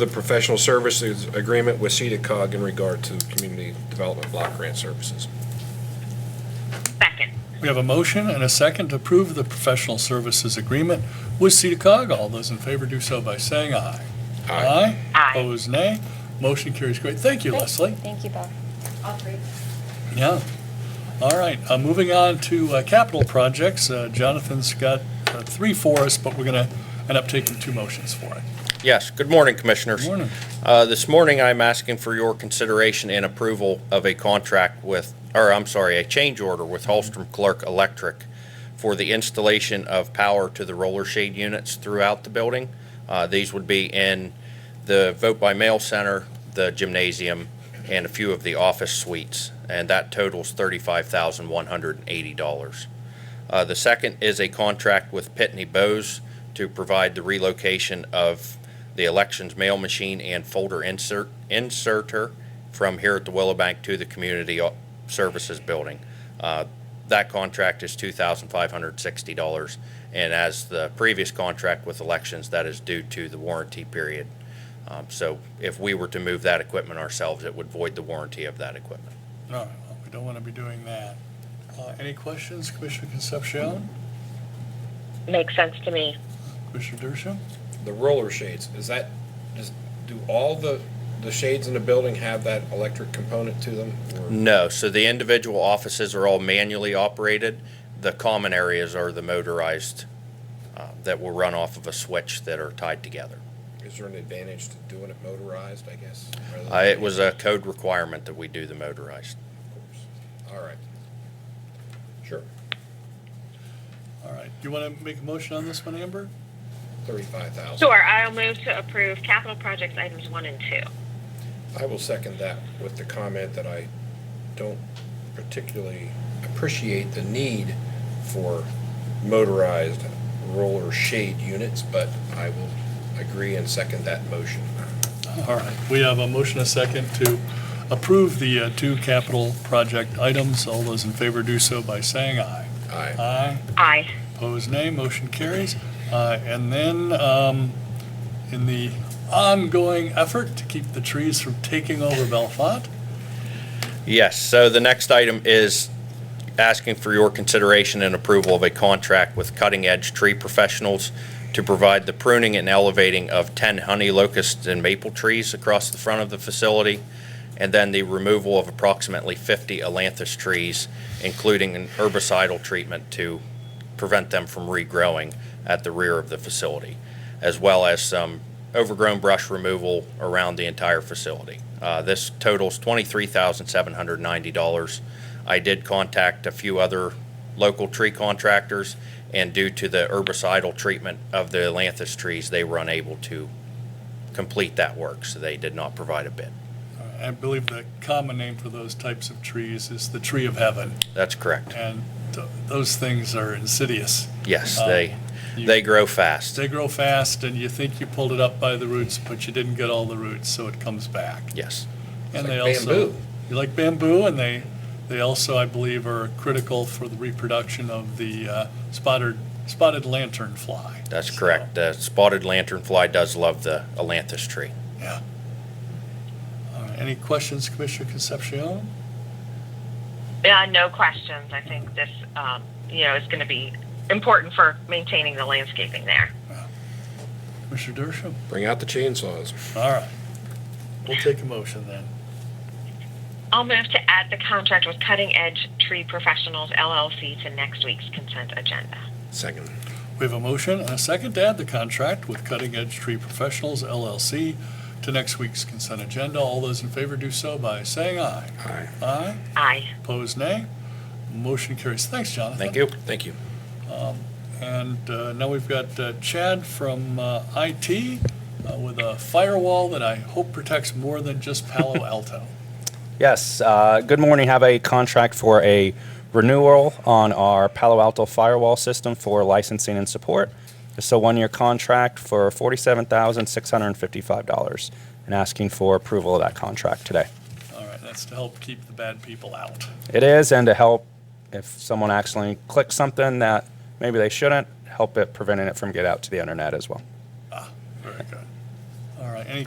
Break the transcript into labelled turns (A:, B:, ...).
A: the professional services agreement with CEDACOG in regard to community development block grant services.
B: Second.
C: We have a motion and a second to approve the professional services agreement with CEDACOG. All those in favor do so by saying aye. Aye.
B: Aye.
C: Opposed, nay. Motion carries. Great. Thank you,
D: Great.
C: Leslie.
D: Thank you, Bob.
E: All three.
C: Yeah. All right, uh, moving on to uh, capital projects. Uh, Jonathan's got uh, three for us, but we're going to end up taking two motions for it.
F: Yes, good morning, Commissioners.
C: Good morning.
F: Uh, This morning, I'm asking for your consideration and approval of a contract with, or I'm sorry, a change order with Holstrom Clerk Electric for the installation of power to the roller shade units throughout the building. Uh, These would be in the vote-by-mail center, the gymnasium, and a few of the office suites, and that totals $35,180. Uh, The second is a contract with Pitney Bowes to provide the relocation of the elections mail machine and folder insert, inserter from here at the Willow Bank to the Community O- Services Building. Uh, That contract is $2,560, and as the previous contract with elections, that is due to the warranty period. Um, So if we were to move that equipment ourselves, it would void the warranty of that equipment.
C: All right, well, we don't want to be doing that. Uh, Any questions, Commissioner Concepcion,
B: Makes sense to me.
C: Commissioner Dershowitz?
A: The roller shades, is that, does, do all the, the shades in the building have that electric component to them? or-
F: No, so the individual offices are all manually operated. The common areas are the motorized uh, that will run off of a switch that are tied together.
A: Is there an advantage to doing it motorized, I guess? rather than-
F: Uh, It was a code requirement that we do the motorized.
A: All right. Sure,
C: All right, you want to make a motion on this one, Amber?
A: thirty-five thousand.
B: Sure, I'll move to approve capital projects items one and two.
A: I will second that with the comment that I don't particularly appreciate the need for motorized roller shade units, but I will agree and second that motion.
C: All right, we have a motion, a second, to approve the uh, two capital project items. All those in favor do so by saying aye.
A: Aye.
C: Aye.
B: Aye.
C: Opposed, nay. Motion carries. Uh, And then, um, in the ongoing effort to keep the trees from taking over Bellefonte,
F: Yes, so the next item is asking for your consideration and approval of a contract with Cutting Edge Tree Professionals to provide the pruning and elevating of 10 honey locusts and maple trees across the front of the facility, and then the removal of approximately 50 Elanthus trees, including an herbicidal treatment to prevent them from regrowing at the rear of the facility, as well as some overgrown brush removal around the entire facility. Uh, This totals $23,790. I did contact a few other local tree contractors, and due to the herbicidal treatment of the Atlantis trees, they were unable to complete that work, so they did not provide a bid.
C: uh, I believe the common name for those types of trees is the tree of heaven,
F: That's correct.
C: and th- those things are insidious.
F: Yes,
C: Um,
F: they,
C: you-
F: they grow fast.
C: They grow fast, and you think you pulled it up by the roots, but you didn't get all the roots, so it comes back.
F: Yes,
C: And
A: It's
C: they
A: like
C: also,
A: bamboo.
C: you like bamboo, and they, they also, I believe, are critical for the reproduction of the uh, spotted, spotted lantern fly.
F: that's
C: So,
F: correct. The spotted lanternfly does love the Atlantis tree.
C: Yeah. All right, Any questions, Commissioner Concepcion?
B: Yeah, no questions. I think this, um, you know, is going to be important for maintaining the landscaping there.
C: Commissioner Dershowitz?
A: Bring out the chainsaws.
C: All right. We'll take a motion then.
B: I'll move to add the contract with Cutting Edge Tree Professionals LLC to next week's consent agenda.
A: Second.
C: We have a motion and a second to add the contract with Cutting Edge Tree Professionals LLC to next week's consent agenda. All those in favor do so by saying aye.
A: Aye.
C: Aye.
B: Aye.
C: Opposed, nay. Motion carries. Thanks, Jonathan. Um,
F: Thank you.
A: Thank you.
C: And uh, now we've got uh, Chad from uh, IT uh, with a firewall that I hope protects more than just Palo Alto.
G: Yes, uh, good morning. Have a contract for a renewal on our Palo Alto firewall system for licensing and support. It's a one-year contract for $47,655 and asking for approval of that contract today.
C: All right, that's to help keep the bad people out.
G: It is, and to help if someone accidentally clicks something that maybe they shouldn't, help it preventing it from get out to the internet as well.
C: Very good. All right, any